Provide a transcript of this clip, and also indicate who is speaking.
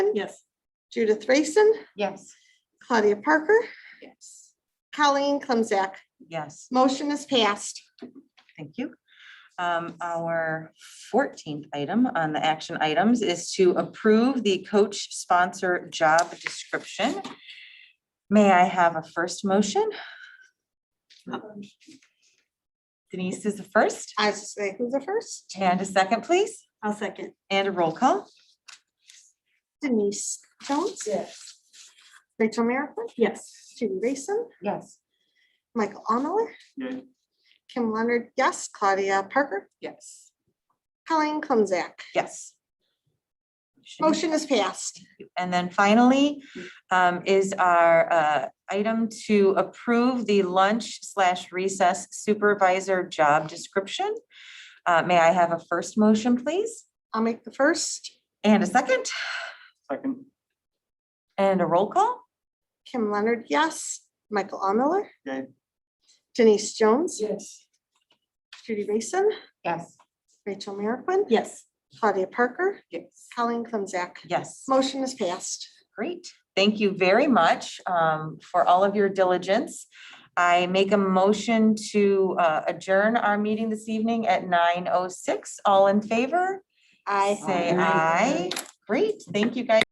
Speaker 1: Morgan,
Speaker 2: Yes.
Speaker 1: Judith Rayson,
Speaker 3: Yes.
Speaker 1: Claudia Parker,
Speaker 2: Yes.
Speaker 1: Colleen Clemzak.
Speaker 3: Yes,
Speaker 1: Motion is passed.
Speaker 3: thank you. Um, our fourteenth item on the action items is to approve the coach sponsor job description. May I have a first motion? Denise is the first,
Speaker 1: I was just say, who's the first?
Speaker 3: and a second, please,
Speaker 2: I'll second.
Speaker 3: and a roll call.
Speaker 1: Denise Jones,
Speaker 2: Yes.
Speaker 1: Rachel Merrickwin,
Speaker 2: Yes.
Speaker 1: Judy Rayson,
Speaker 3: Yes.
Speaker 1: Michael Omeller,
Speaker 4: Yes.
Speaker 1: Kim Leonard, yes, Claudia Parker,
Speaker 2: Yes.
Speaker 1: Colleen Clemzak.
Speaker 3: Yes.
Speaker 1: Motion is passed.
Speaker 3: And then finally, um, is our, uh, item to approve the lunch slash recess supervisor job description. Uh, may I have a first motion, please?
Speaker 1: I'll make the first.
Speaker 3: And a second,
Speaker 4: Second,
Speaker 3: and a roll call?
Speaker 1: Kim Leonard, yes, Michael Omeller.
Speaker 4: Yay.
Speaker 1: Denise Jones,
Speaker 2: Yes.
Speaker 1: Judy Rayson,
Speaker 3: Yes.
Speaker 1: Rachel Merrickwin,
Speaker 2: Yes.
Speaker 1: Claudia Parker,
Speaker 2: Yes.
Speaker 1: Colleen Clemzak.
Speaker 3: Yes.
Speaker 1: Motion is passed.
Speaker 3: Great. Thank you very much um, for all of your diligence. I make a motion to uh, adjourn our meeting this evening at nine oh six. All in favor?
Speaker 1: Aye.
Speaker 3: Say aye. Great. Thank you, guys.